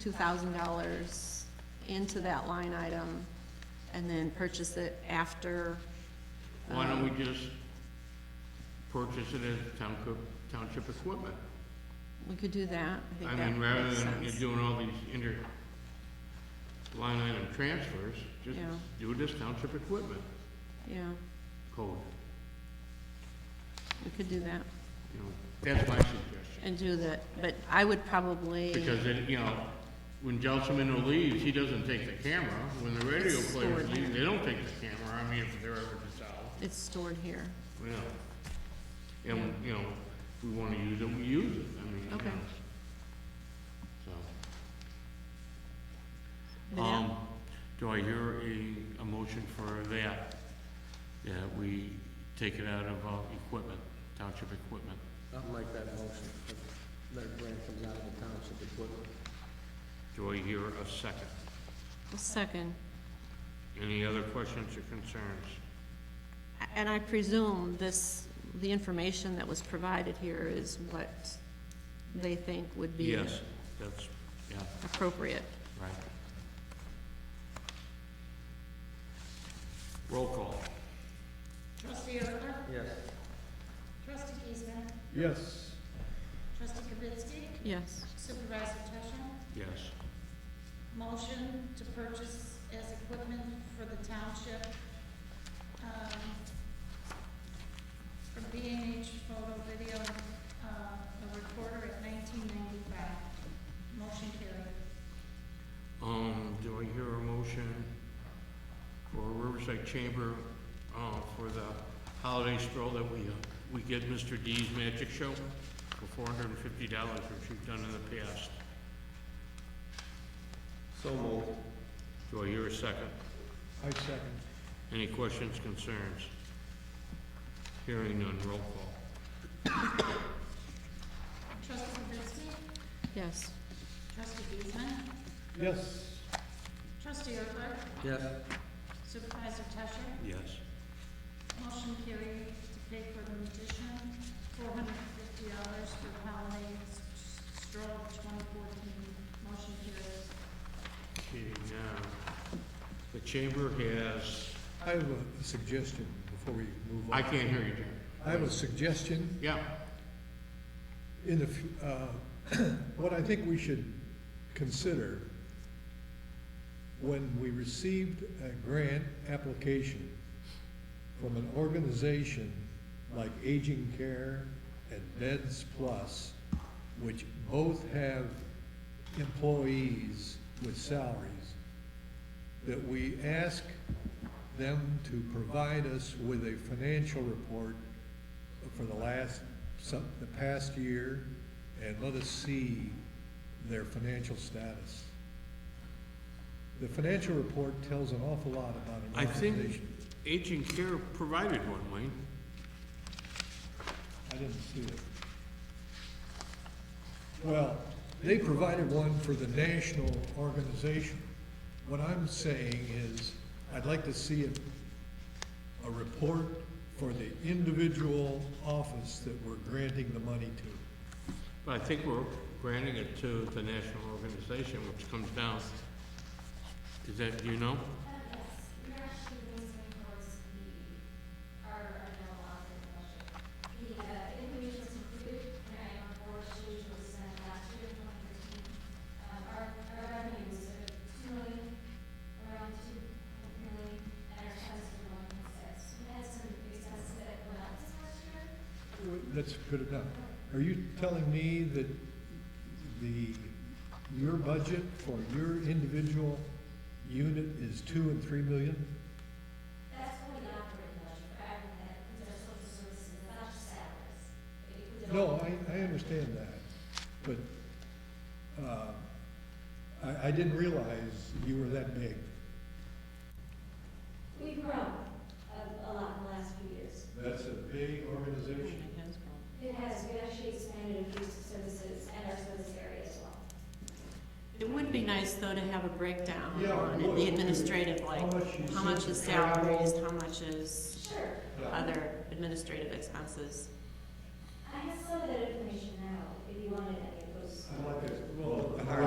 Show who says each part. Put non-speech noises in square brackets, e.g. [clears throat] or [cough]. Speaker 1: two thousand dollars into that line item and then purchase it after. um,
Speaker 2: Why don't we just purchase it as township, township equipment?
Speaker 1: We could do that. think
Speaker 2: I
Speaker 1: that
Speaker 2: mean, rather
Speaker 1: makes
Speaker 2: than you
Speaker 1: sense.
Speaker 2: doing all these inter, line item transfers, just
Speaker 1: Yeah.
Speaker 2: do it as township equipment
Speaker 1: Yeah,
Speaker 2: code,
Speaker 1: we could do that
Speaker 2: you know, that's my suggestion.
Speaker 1: and do that, but I would probably.
Speaker 2: Because it, you know, when Gelsomino leaves, he doesn't take the camera, when the radio
Speaker 1: It's
Speaker 2: players
Speaker 1: stored
Speaker 2: leave,
Speaker 1: there.
Speaker 2: they don't take the camera, I mean, if they're ever dissolved.
Speaker 1: It's stored here.
Speaker 2: Well, and, you know, if we wanna use it, we use it, I mean, you
Speaker 1: Okay.
Speaker 2: know. So.
Speaker 1: But yeah,
Speaker 2: Um, do I hear a, a motion for that? That we take it out of, uh, equipment, township equipment?
Speaker 3: I'll make that motion, that- that grant comes out of the township equipment.
Speaker 2: Do I hear a second?
Speaker 1: a Second,
Speaker 2: Any other questions or concerns?
Speaker 1: A- and I presume this, the information that was provided here is what they think would be
Speaker 2: Yes, that's, yeah,
Speaker 1: appropriate.
Speaker 2: right. Roll call.
Speaker 4: Trustee Ertler?
Speaker 3: Yes.
Speaker 4: Trustee Giesman?
Speaker 5: yes,
Speaker 4: Trustee Kavitsky?
Speaker 1: Yes,
Speaker 4: Supervisor Tusha?
Speaker 2: Yes.
Speaker 4: Motion to purchase as equipment for the township, um, for B and H photo video, uh, a recorder at nineteen ninety-five. Motion carried.
Speaker 2: Um, do I hear a motion for Riverside Chamber, uh, for the holiday stroll that we, uh, we get Mr. D's Magic Show for four hundred and fifty dollars, which we've done in the past?
Speaker 3: So moved.
Speaker 2: Do I hear a second?
Speaker 5: I second.
Speaker 2: Any questions, concerns? Hearing none, roll call.
Speaker 4: Trustee Kavitsky?
Speaker 1: yes.
Speaker 4: Trustee Giesman?
Speaker 5: Yes,
Speaker 4: Trustee Ertler?
Speaker 3: Yes.
Speaker 4: Supervisor Tusha?
Speaker 2: Yes.
Speaker 4: Motion carried to pay for an additional four hundred and fifty dollars for the holiday s- stroll twenty fourteen. Motion carried.
Speaker 2: Okay, now, the chamber has,
Speaker 5: I have a suggestion before we move
Speaker 2: I
Speaker 5: on.
Speaker 2: can't hear you, Jim.
Speaker 5: I have a suggestion.
Speaker 2: Yeah,
Speaker 5: in the, fu- uh, [clears throat] what I think we should consider when we received a grant application from an organization like Aging Care and Beds Plus, which both have employees with salaries, that we ask them to provide us with a financial report for the last, some, the past year, and let us see their financial status. The financial report tells an awful lot about
Speaker 2: I
Speaker 5: an
Speaker 2: think
Speaker 5: organization.
Speaker 2: Aging Care provided one, Wayne.
Speaker 5: I didn't see it. Well, they provided one for the national organization. What I'm saying is, I'd like to see a, a report for the individual office that we're granting the money to.
Speaker 2: But I think we're granting it to the national organization, which comes down, is that, do you know?
Speaker 5: That's good enough. Are you telling me that the, your budget for your individual unit is two and three million? That's what the operating budget, for everything, there's social services, not salaries. No, I, I understand that, but, uh, I, I didn't realize you were that big.
Speaker 6: We've grown a, a lot in the last few years.
Speaker 5: That's a big organization.
Speaker 6: It has, we actually expanded abuse services and our service area as well.
Speaker 1: It would be nice, though, to have a breakdown
Speaker 5: Yeah,
Speaker 1: on
Speaker 5: it would.
Speaker 1: the administrative, like,
Speaker 5: How much you
Speaker 1: how much
Speaker 5: send
Speaker 1: is
Speaker 5: to travel.
Speaker 1: salaries, how much is
Speaker 6: Sure.
Speaker 5: Yeah.
Speaker 1: other administrative expenses.